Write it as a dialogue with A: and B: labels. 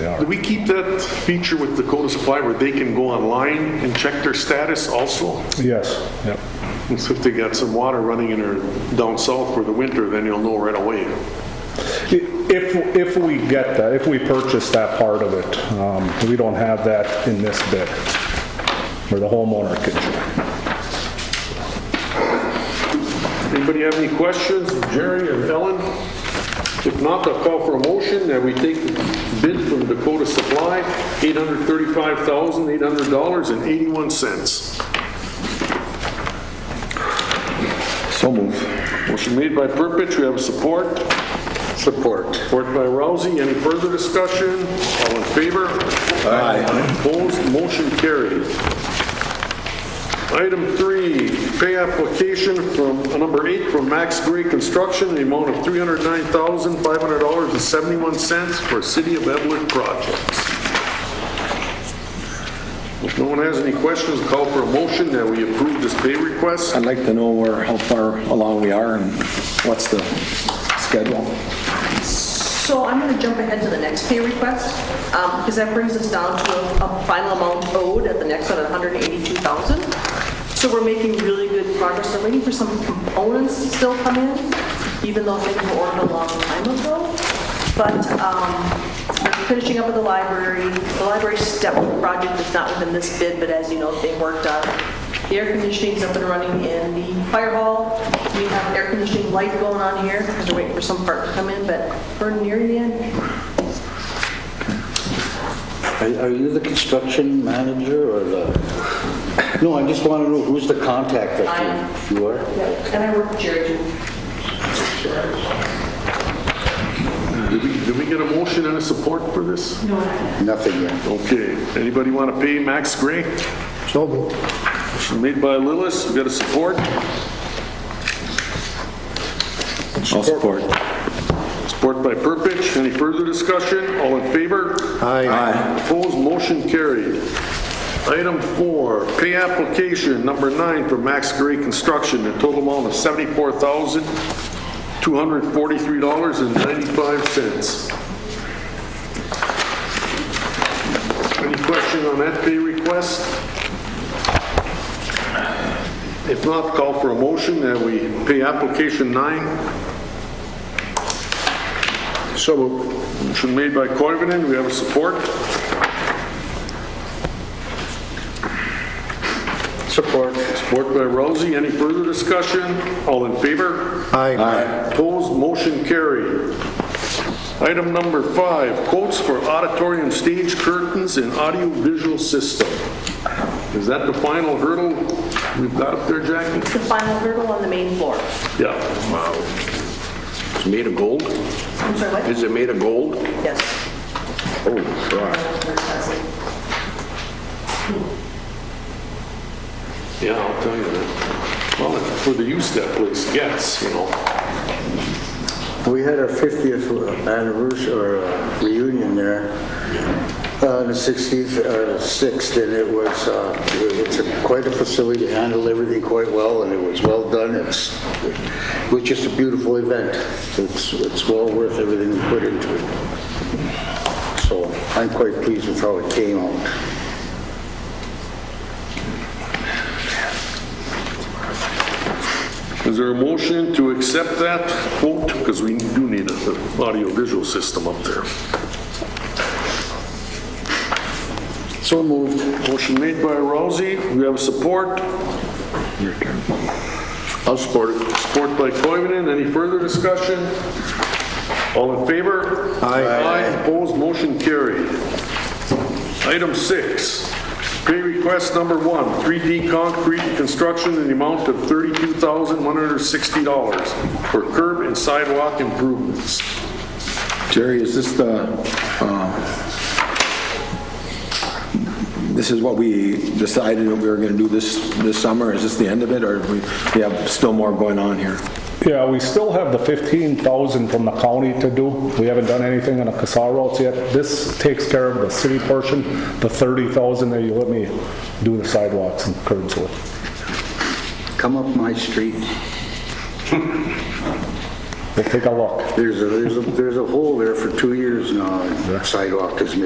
A: are.
B: Do we keep that feature with Dakota Supply where they can go online and check their status also?
A: Yes, yep.
B: And So if they got some water running in or down south for the winter, then you'll know right away.
A: If, if we get that, if we purchase that part of it, um, we don't have that in this bid, where the homeowner can join.
B: Anybody have any questions, Jerry or Ellen? If not, I'll call for a motion that we take the bid from Dakota Supply, $835,800.81.
C: So move.
B: Motion made by Purpich, we have support. Support. Support by Rousey, any further discussion? All in favor?
C: Aye.
B: Opposed, motion carried. Item three, pay application from, uh, number eight, from Max Gray Construction, in the amount of $309,500.71 for City of Evelyn projects. If no one has any questions, call for a motion that we approve this pay request.
C: I'd like to know where, how far along we are and what's the schedule.
D: So I'm going to jump ahead to the next pay request, um, because that brings us down to a a final amount owed at the next one, 182,000. So we're making really good progress. I'm waiting for some components to still come in, even though things were ordered a long time ago. But um, we're finishing up with the library. The library step project is not within this bid, but as you know, they worked on the air conditioning's up and running in the fire hall. We have air conditioning light going on here because we're waiting for some part to come in, but we're nearing the end.
E: Are are you the construction manager or the, no, I just want to know who's the contact that
D: I am.
E: you, you are?
D: And I work with Jerry. too.
B: Did we- did we get a motion and a support for this?
E: Nothing yet.
B: Okay, anybody want to pay Max Gray?
E: So moved.
B: Motion Made by Lillis, we got a support?
C: I'll support.
B: Support by Purpich, any further discussion? All in favor?
E: Aye.
C: Aye.
B: Opposed, motion carried. Item four, pay application number nine for Max Gray Construction, a total amount of $74,243.95. Any question on that pay request? If not, call for a motion that we pay application nine so moved. Motion made by Koivunen, we have a support. Support. Support by Rousey, any further discussion? All in favor?
C: Aye.
B: Opposed, motion carried. Item number five, quotes for auditorium stage curtains and audiovisual system. Is that the final hurdle we've got up there, Jackie?
D: It's the final hurdle on the main floor.
B: Yeah.
F: It's made of gold?
D: I'm sorry, what?
F: Is it made of gold?
D: Yes.
F: Oh, God.
B: Yeah, I'll tell you that. Well, for the use that place gets, you know.
G: We had our 50th anniversary or uh, reunion there on the 16th, or the 6th, and it was, uh, it's a- quite a facility, handled everything quite well, and it was well done. It's, it was just a beautiful event. It's, it's well worth everything we put into it. So I'm quite pleased with how it came out.
B: Is there a motion to accept that quote? Because we do need an audiovisual system up there. So moved. Motion made by Rousey. We have support. I'll support it. Support by Coivinon. Any further discussion? All in favor? Aye. Aye. Opposed? Motion carried. Item six, pay request number one, 3D concrete construction in the amount of $32,160 for curb and sidewalk improvements.
C: Jerry, is this the, um, this is what we decided that we were going to do this, this summer? Is this the end of it, or we we have still more going on here?
A: Yeah, we still have the 15,000 from the county to do. We haven't done anything on the Casar roads yet. This takes care of the city portion, the 30,000 that you let me do the sidewalks and curbs with.
G: Come up my street,
A: We'll take a look.
G: there's a, there's a, there's a hole there for two years now, sidewalk is